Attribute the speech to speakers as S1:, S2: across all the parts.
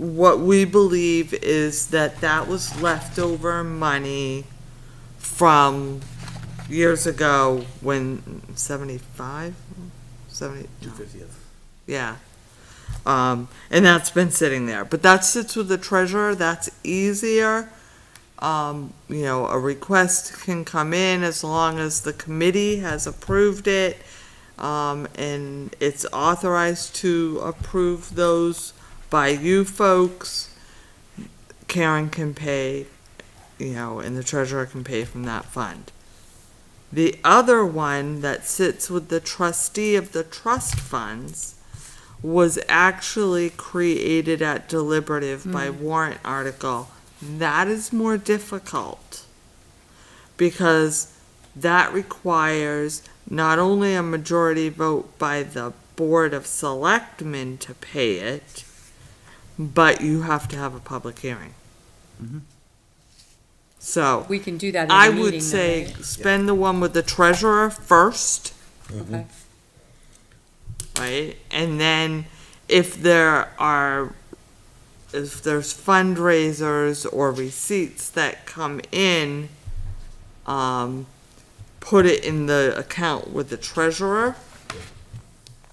S1: What we believe is that that was leftover money from years ago when seventy-five, seventy,
S2: Two fiftieth.
S1: yeah. Um, and that's been sitting there, but that sits with the treasurer, that's easier. Um, you know, a request can come in as long as the committee has approved it. Um, and it's authorized to approve those by you folks. Karen can pay, you know, and the treasurer can pay from that fund. The other one that sits with the trustee of the trust funds was actually created at deliberative by warrant article. That is more difficult because that requires not only a majority vote by the Board of Selectmen to pay it, but you have to have a public hearing. So,
S3: We can do that in
S1: I
S3: a meeting.
S1: would
S3: though,
S1: say
S3: right?
S1: spend the one with the treasurer first.
S4: Mm-hmm.
S3: Okay.
S1: right? And then if there are, if there's fundraisers or receipts that come in, um, put it in the account with the treasurer.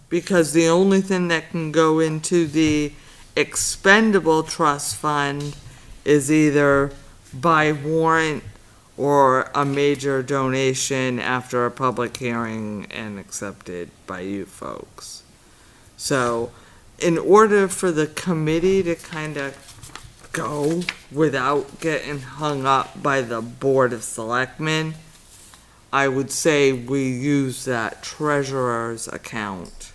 S1: Because the only thing that can go into the expendable trust fund is either by warrant or a major donation after a public hearing and accepted by you folks. So, in order for the committee to kind of go without getting hung up by the Board of Selectmen, I would say we use that treasurer's account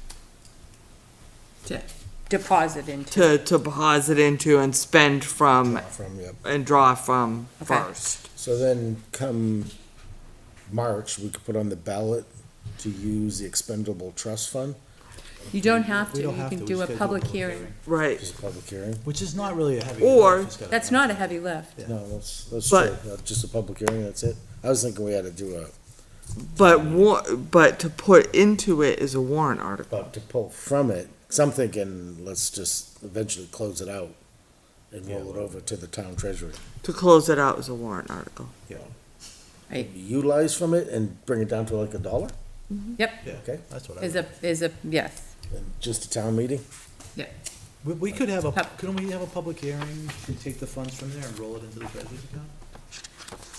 S3: To Deposit
S1: to,
S3: into,
S1: to deposit into and spend from
S2: From, yep.
S1: and draw from
S3: Okay.
S1: first.
S2: So then come March, we could put on the ballot to use the expendable trust fund,
S3: you don't have to,
S4: We
S3: you
S4: don't have
S3: can
S4: to, we
S3: do a
S4: just gotta do a
S3: public
S4: public
S3: hearing.
S1: Right.
S2: just a public hearing.
S4: Which is not really a heavy.
S1: Or-
S4: lift, it's gotta
S3: That's
S4: be-
S3: not a heavy lift.
S2: No, that's, that's true,
S1: But-
S2: Uh, just a public hearing, that's it. I was thinking we had to do a,
S1: But wa- but to put into it is a warrant article.
S2: but to pull from it, so I'm thinking, let's just eventually close it out and roll it over to the town treasury.
S1: To close it out is a warrant article.
S3: Right.
S2: Utilize from it and bring it down to like a dollar,
S3: Yep,
S4: Yeah,
S2: okay?
S4: that's what I,
S3: is
S4: would-
S3: a, is a, yes. Mm-hmm.
S2: And just a town meeting?
S4: we, we could have a,
S3: Pub-
S4: couldn't we have a public hearing and take the funds from there and roll it into the treasurer's account?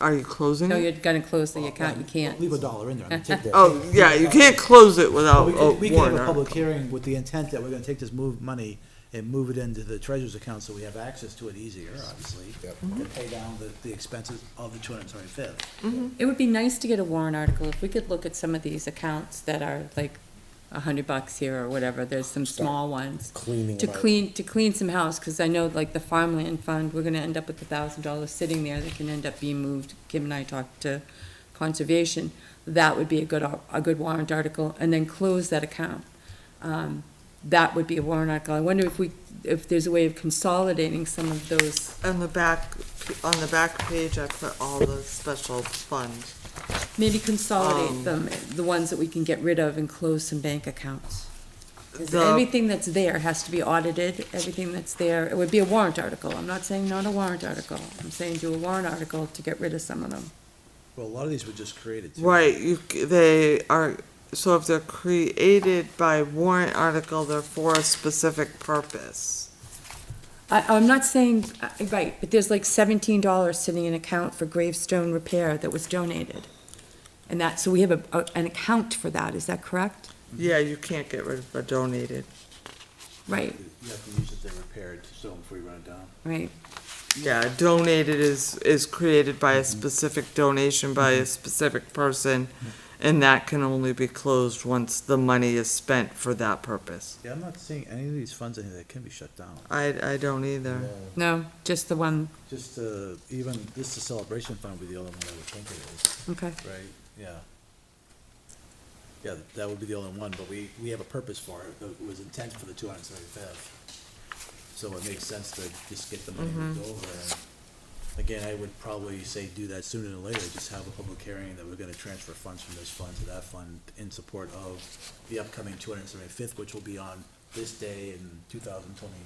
S1: Are you closing
S3: No,
S1: it?
S3: you're gonna close the account, you can't.
S4: Leave a dollar in there, I mean, take that.
S1: Oh, yeah, you can't close it
S4: But
S1: without
S3: Oh,
S4: We
S1: a
S4: could, we could have
S1: warrant
S4: a
S1: article.
S4: public hearing with the intent that we're gonna take this move, money and move it into the treasurer's account so we have access to it easier, obviously.
S2: Yep.
S3: Mm-hmm.
S4: To pay down the, the expenses of the two hundred and seventy-fifth.
S3: It would be nice to get a warrant article, if we could look at some of these accounts that are like a hundred bucks here or whatever, there's some
S2: Start
S3: small ones.
S2: Cleaning
S3: To
S2: them out.
S3: clean, to clean some house, cause I know like the farmland fund, we're gonna end up with a thousand dollars sitting there that can end up being moved. Kim and I talked to conservation, that would be a good, ar- a good warrant article, and then close that account. Um, that would be a warrant article. I wonder if we, if there's a way of consolidating some of those,
S1: On the back, on the back page, I put all the special funds.
S3: maybe
S1: Um.
S3: consolidate them, the ones that we can get rid of and close some bank accounts. 'Cause
S1: The-
S3: everything that's there has to be audited, everything that's there, it would be a warrant article. I'm not saying not a warrant article. I'm saying do a warrant article to get rid of some of them.
S4: Well, a lot of these were just created too.
S1: Right, you, c- they are, so if they're created by warrant article, they're for a specific purpose.
S3: I, I'm not saying, uh, right, but there's like seventeen dollars sitting in account for gravestone repair that was donated. And that, so we have a, a- an account for that, is that correct?
S4: Mm-hmm.
S1: Yeah, you can't get rid of a donated,
S3: Right,
S4: You have to use it, they're repaired, so before you run it down.
S3: right.
S1: yeah, donated is, is created by a specific donation by a specific person, and that can only be closed once the money is spent for that purpose.
S4: Yeah, I'm not seeing any of these funds in here that can be shut down.
S1: I, I don't either.
S3: No, just the one,
S4: Just, uh, even, this is celebration fund would be the only one I would think it is.
S3: okay.
S4: Right, yeah. Yeah, th- that would be the only one, but we, we have a purpose for it, though it was intent for the two hundred and seventy-fifth. So it makes sense to just get the money moved over, and again, I would probably say do that sooner than later, just have a public hearing that we're gonna transfer funds from this fund to that fund in support of the upcoming two hundred and seventy-fifth, which will be on this day in two thousand twenty